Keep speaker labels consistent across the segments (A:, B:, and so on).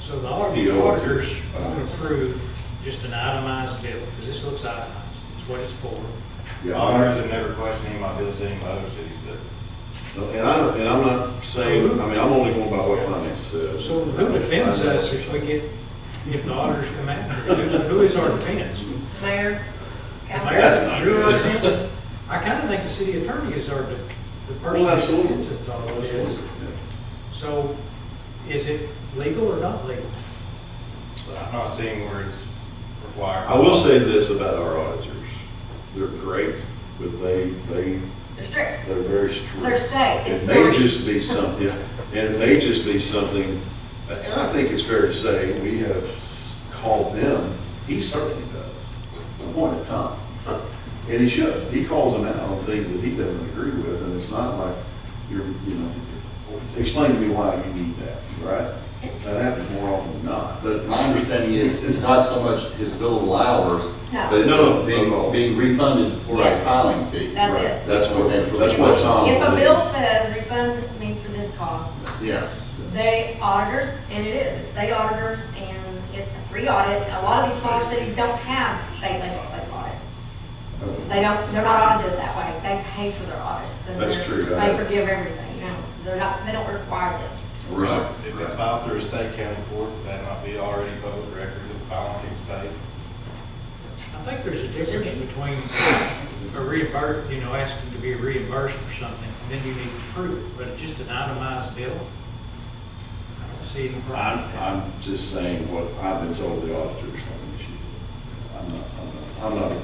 A: So the
B: The auditors.
A: auditor- auditors would approve just an itemized bill, because this looks itemized, it's what it's for.
B: The
C: Auditors
B: auditors,
C: have never questioned any of my bills, any of my other cities, but
B: and I, and I'm not saying, I mean, I'm only going by what finance says.
A: So who defends us if we get, if the auditors come after us? Who's- Who is our defense?
D: Mayor,
A: The
D: council.
A: mayor?
B: That's not-
A: You're our defense? I kind of think the city attorney is our, de- the person
B: Well,
A: that
B: absolutely.
A: defends us all of this.
B: Yeah.
A: So is it legal or not legal?
C: I'm not seeing where it's required.
B: I will say this about our auditors. They're great, but they, they,
D: They're strict.
B: they're very strict.
D: They're state, it's
B: It may
D: very-
B: just be something, and it may just be something, and I think it's fair to say, we have called them, he certainly does, one at a time. And he should, he calls them out on things that he doesn't agree with, and it's not like, you're, you know, explain to me why you need that, right? That happens more often than not.
E: But my understanding is, it's not so much his billable hours,
D: No.
E: but
B: No, no,
E: it's
B: no.
E: being, being refunded for a
D: Yes.
E: filing fee.
D: That's it.
B: That's what, that's what Tom.
D: If a bill says refund me for this cost,
E: Yes.
D: they auditors, and it is, it's state auditors, and it's a free audit. A lot of these smaller cities don't have state legislative audit. They don't, they're not audited that way. They pay for their audits. and
B: That's
D: they're-
B: true, right.
D: They forgive everything, you know, so they're not, they don't require this.
C: So,
B: Right.
C: If it's filed through a state county court, would that might be already public record, the filing fees paid.
A: I think there's a difference between a reimbursement, you know, asking to be reimbursed for something, and then you need to prove it, but just an itemized bill? I don't see any problem.
B: I'm,
A: with that.
B: I'm just saying what I've been told the auditor's not an issue. I'm not, I'm not, I'm not,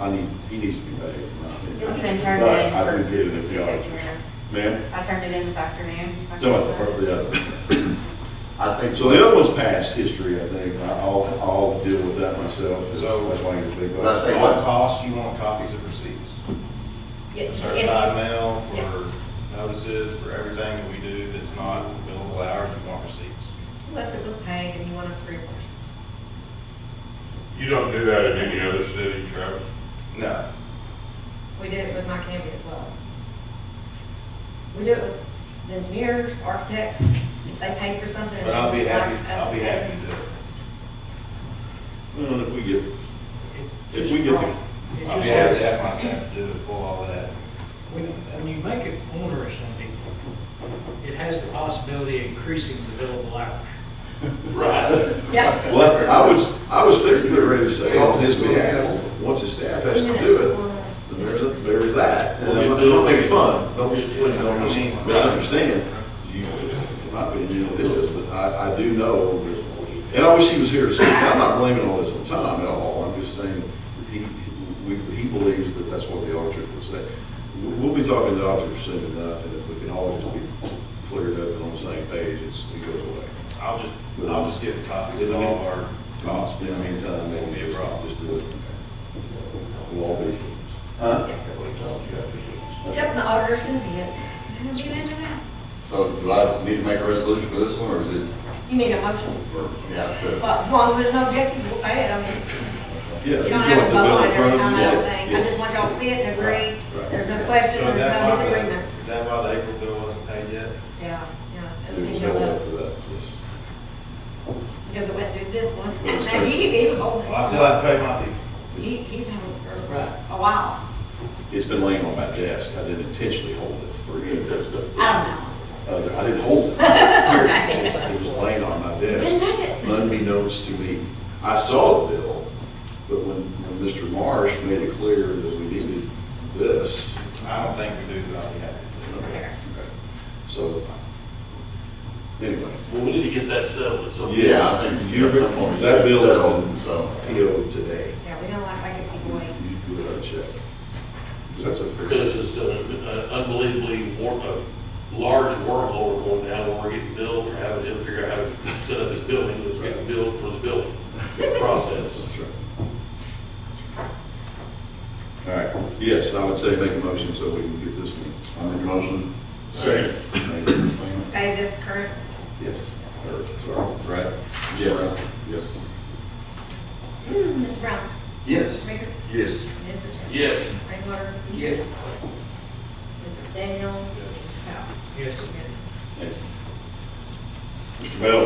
B: I need, he needs to be paid, in my opinion.
F: It's been turned
B: But
F: in
B: I
F: for-
B: would get it if the auditors, ma'am,
F: I turned it in this afternoon.
B: don't have to, for the other.
E: I think.
B: So the other one's past history, I think, I- I'll, I'll deal with that myself, that's why you're big.
E: But I
B: bucks.
E: think-
C: All costs, you want copies of receipts.
D: Yes, if you-
C: Certified mail
D: Yes.
C: for notices, for everything that we do that's not billable hours, you want receipts.
D: What if it was paid and you wanted to reimburse?
G: You don't do that in any other city, Travis?
C: No,
D: We did it with my county as well. We do it with the engineers, architects, if they pay for something.
C: but I'll be happy,
D: like us
C: I'll be
D: to pay.
C: happy to do it.
B: Well, if we get,
A: It
B: if
A: just
B: we get
A: wrong.
B: the.
A: It
C: I'll be happy to
A: just-
C: have my staff do it, pull all that.
A: When when you make it onerous on people, it has the possibility of increasing the billable hours.
B: Right.
D: Yeah.
B: Well, I was, I was fixing to get ready to say on his behalf, once his staff has to do it, then there's, a- there's that. And I'm not- don't make it fun, don't, please don't mis- misunderstand. You- In my opinion, it is, but I, I do know that, and I wish he was here to speak. I'm not blaming all this on Tom at all. I'm just saying, he, we, he believes that that's what the auditor would say. We- We'll be talking to the auditor soon enough, and if we can all just be cleared up and on the same page, it's, it goes away.
C: I'll just, I'll just get a copy of all of our costs.
B: In the meantime, they won't be a problem, just do it. We'll all be.
D: Yep. Except the auditors can see it. They don't do that to them.
E: So do I need to make a resolution for this one, or is it,
D: You need a motion.
E: or, yeah, good.
D: Well, as long as there's no objections, we'll pay it. I mean,
B: Yeah.
D: you
B: you
D: don't
B: want
D: have
B: the
D: a vote
B: bill
D: on
B: in
D: it
B: front
D: every
B: of
D: time,
B: you?
D: I don't
B: Yes,
D: think. I
B: yes.
D: just want y'all to see it and agree.
B: Right.
D: There's no
C: So
D: questions,
C: is
D: there's
C: that
D: no
C: why the-
D: disagreement.
C: Is that why the April bill wasn't paid yet?
D: Yeah,
B: There was no
D: yeah.
B: way for that, yes.
D: Because it went through this one.
B: Well, it's
D: Now, he, he was holding it.
C: Well, I still have to pay my people.
D: He, he's having it for
B: Right.
D: a while.
B: It's been laying on my desk, I didn't intentionally hold it for you,
D: I don't know.
B: other, Uh, I didn't hold it. Seriously, It was laying on my desk.
D: Didn't touch it.
B: Unbeknownst to me, I saw the bill, but when, when Mr. Marsh made it clear that we needed this,
C: I don't think we do, but I'll be happy to do it.
B: Okay. So, anyway,
H: Well, we need to get that settled at some point.
E: Yeah, I think
B: You-
E: you, at some point, um, you
B: that
E: should
B: bill is-
E: settle, so.
B: PO today,
D: Yeah, we don't like making people wait.
B: you do it on check. That's a
H: Because
B: fair.
H: it's still an unbelievably war, a large wormhole we're going down when we're getting billed for having him figure out how to set up his buildings, it's getting billed for the building process.
B: That's right. All right, yes, I would say make a motion so we can get this one.
E: I make a motion.
H: Second.
B: Thank you.
D: Pay this current,
B: Yes, or, sorry, right?
E: Yes, yes.
D: Ms. mm, Brown,
E: Yes.
D: Mr. Baker,
E: Yes.
D: Mr. Chapman.
H: Yes.
D: Rainwater.
E: Yes.
D: Mr. Daniel. Powell.
A: Yes.
B: Mr. Bell?